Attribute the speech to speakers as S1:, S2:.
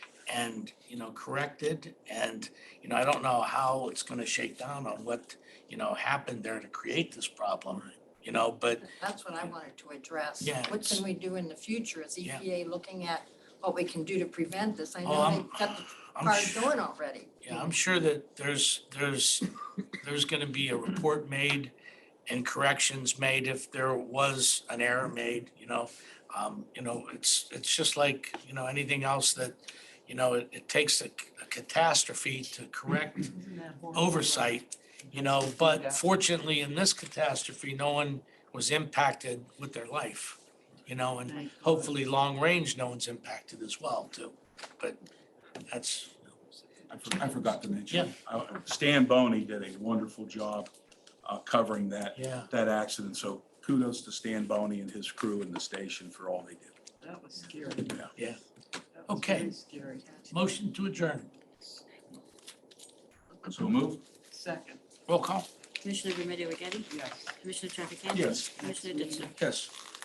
S1: and, you know, corrected. And, you know, I don't know how it's gonna shake down on what, you know, happened there to create this problem, you know, but,
S2: That's what I wanted to address.
S1: Yeah,
S2: What
S1: it's-
S2: can we do in the future? Is
S1: Yeah.
S2: EPA looking at what we can do to prevent this? I
S1: oh,
S2: know
S1: I'm,
S2: they've got the
S1: I'm
S2: bar
S1: sure.
S2: going already.
S1: Yeah, I'm sure that there's, there's, there's gonna be a report made and corrections made if there was an error made, you know? Um, you know, it's, it's just like, you know, anything else that, you know, it, it takes a c- a catastrophe to correct oversight, you know, but fortunately, in this catastrophe, no one was impacted with their life, you know, and hopefully, long range, no one's impacted as well, too. But that's,
S3: I for- I forgot to
S1: Yeah.
S3: mention. uh, Stan Boney did a wonderful job uh, covering that,
S1: yeah.
S3: that accident. So kudos to Stan Boney and his crew and the station for all they did.
S4: That was scary.
S1: Yeah.
S4: That was
S1: Okay.
S4: very Scary.
S1: Motion to adjourn.
S3: So move?
S4: Second,
S1: Roll call.
S5: Commissioner Remedy Agati?
S4: yes.
S5: Commissioner Trafficant?
S3: Yes.
S5: Commissioner Ditzler?
S3: Yes.